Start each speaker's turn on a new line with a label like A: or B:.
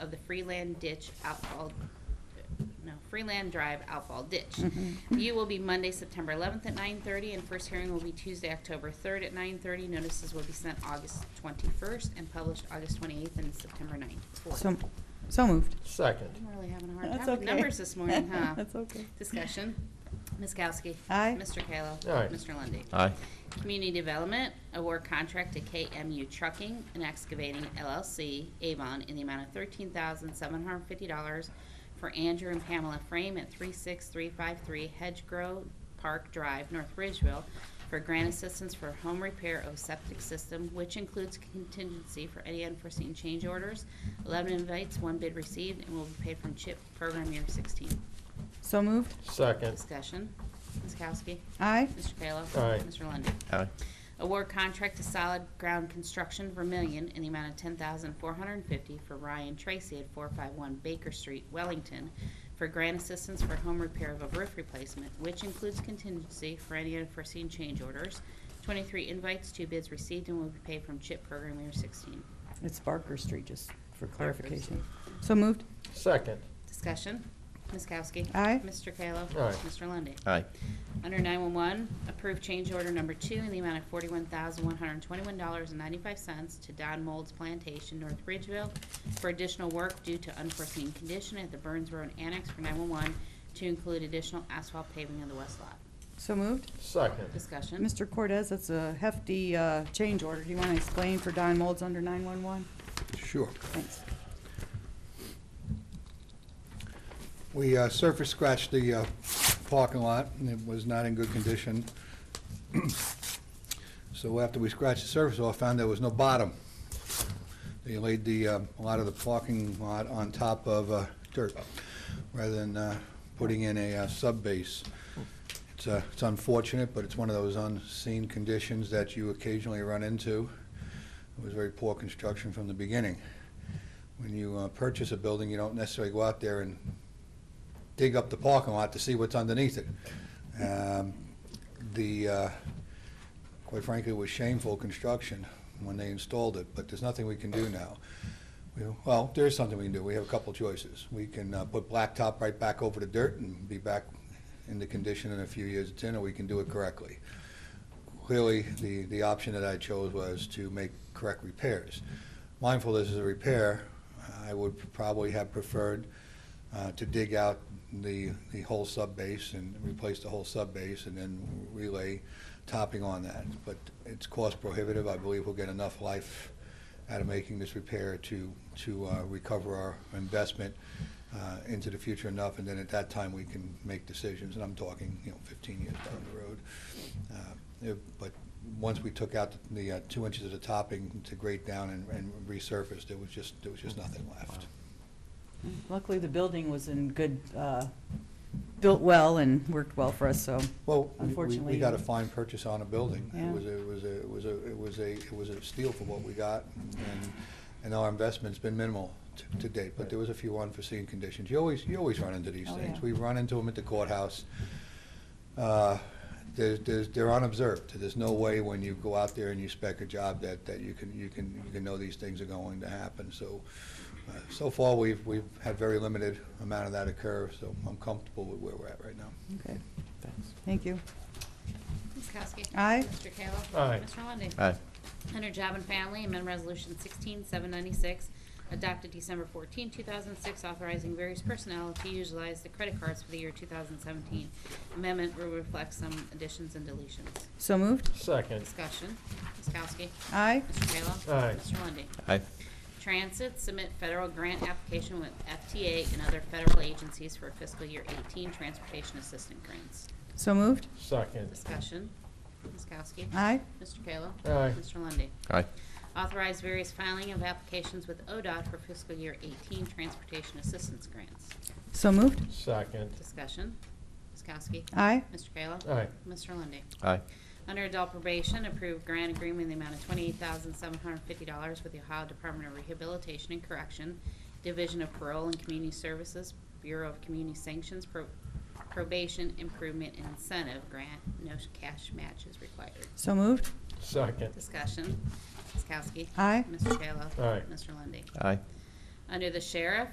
A: of the Freeland ditch outfall, no, Freeland Drive outfall ditch.
B: Mm-hmm.
A: View will be Monday, September eleventh at nine thirty, and first hearing will be Tuesday, October third at nine thirty. Notices will be sent August twenty-first and published August twenty-eighth and September 9th.
B: So, so moved.
C: Second.
A: I'm really having a hard
B: That's
A: time with
B: okay.
A: numbers this morning, huh?
B: That's okay.
A: Discussion. Ms. Kowski.
B: Aye.
A: Mr. Kayla.
C: Aye.
A: Mr. Lundy.
D: Aye.
A: Community Development, award contract to KMU Trucking and Excavating LLC, Avon, in the amount of thirteen thousand seven hundred fifty dollars for Andrew and Pamela Frame at three six three five three Hedgerow Park Drive, North Ridgeville, for grant assistance for home repair of septic system, which includes contingency for any unforeseen change orders. Eleven invites, one bid received, and will be paid from CHIP program year sixteen.
B: So moved.
C: Second.
A: Discussion, Ms. Kowski,
B: Aye.
A: Mr. Kayla.
C: Aye.
A: Mr. Lundey.
D: Aye.
A: Award contract to Solid Ground Construction Vermillion in the amount of ten thousand four hundred and fifty for Ryan Tracy at four five one Baker Street, Wellington, for grant assistance for home repair of a roof replacement, which includes contingency for any unforeseen change orders. Twenty-three invites, two bids received, and will be paid from CHIP program year sixteen.
B: It's Barker Street, just for clarification. So moved.
C: Second.
A: Discussion, Ms. Kowski.
B: Aye.
A: Mr. Kayla.
C: Aye.
A: Mr. Lundy.
D: Aye.
A: Under 911, approve change order number two in the amount of $41,121.95 to Don Mold's Plantation, North Ridgeville, for additional work due to unforeseen condition at the Burns Road Annex for 911 to include additional asphalt paving of the west lot.
B: So moved.
C: Second.
A: Discussion.
B: Mr. Cortez, that's a hefty uh, change order. Do you want to explain for Don Mold's under 911?
E: Sure.
B: Thanks.
E: We uh, surface scratched the uh, parking lot, and it was not in good condition. So after we scratched the surface off, found there was no bottom. They laid the, uh, a lot of the parking lot on top of uh, dirt, rather than uh, putting in a uh, sub-base. It's uh, it's unfortunate, but it's one of those unseen conditions that you occasionally run into. It was very poor construction from the beginning. When you uh, purchase a building, you don't necessarily go out there and dig up the parking lot to see what's underneath it. Um, The, uh, quite frankly, it was shameful construction when they installed it, but there's nothing we can do now. We- Well, there is something we can do. We have a couple choices. We can uh, put blacktop right back over the dirt and be back in the condition in a few years it's in, or we can do it correctly. Clearly, the, the option that I chose was to make correct repairs. Mindful this is a repair, I would probably have preferred uh, to dig out the, the whole subbase and replace the whole subbase and then relay topping on that. But it's cost prohibitive. I believe we'll get enough life out of making this repair to, to uh, recover our investment uh, into the future enough, and then at that time, we can make decisions. And I'm talking, you know, 15 years down the road. Uh, if- But once we took out the uh, two inches of the topping to grade down and- and resurface, there was just, there was just nothing left.
B: Luckily, the building was in good, uh, built well and worked well for us, so
E: Well, we- we-
B: Unfortunately-
E: we got a fine purchase on a building.
B: Yeah.
E: It was, a- it was, a- it was, a- it was a, it was a steal for what we got, and, and our investment's been minimal t- to date, but there was a few unforeseen conditions. You always, you always run into these
B: Oh,
E: things.
B: yeah.
E: We run into them at the courthouse. Uh, There's, there's, they're unobserved. There's no way when you go out there and you spec a job that, that you can, you can, you can know these things are going to happen, so. uh, So far, we've, we've had very limited amount of that occur, so I'm comfortable with where we're at right now.
B: Okay, thank you.
A: Ms. Kowski.
B: Aye.
A: Mr. Kayla.
C: Aye.
A: Mr. Lundey.
D: Aye.
A: Under Job and Family, amend Resolution 16796, adopted December 14, 2006, authorizing various personnel to utilize the credit cards for the year 2017. Amendment will reflect some additions and deletions.
B: So moved.
C: Second.
A: Discussion. Ms. Kowski.
B: Aye.
A: Mr. Kayla.
C: Aye.
A: Mr. Lundy.
D: Aye.
A: Transit, submit federal grant application with FTA and other federal agencies for fiscal year 18 transportation assistance grants.
B: So moved.
C: Second.
A: Discussion. Ms. Kowski.
B: Aye.
A: Mr. Kayla.
C: Aye.
A: Mr. Lundy.
D: Aye.
A: Authorize various filing of applications with ODOT for fiscal year 18 transportation assistance grants.
B: So moved.
C: Second.
A: Discussion. Ms. Kowski.
B: Aye.
A: Mr. Kayla.
C: Aye.
A: Mr. Lundy.
D: Aye.
A: Under adult probation, approved grant agreement in the amount of $28,750 with the Ohio Department of Rehabilitation and Correction, Division of Parole and Community Services, Bureau of Community Sanctions, Pro- Probation Improvement and Incentive Grant. No cash match is required.
B: So moved.
C: Second.
A: Discussion. Ms. Kowski.
B: Aye.
A: Mr. Kayla.
C: Aye.
A: Mr. Lundy.
D: Aye.
A: Under the Sheriff,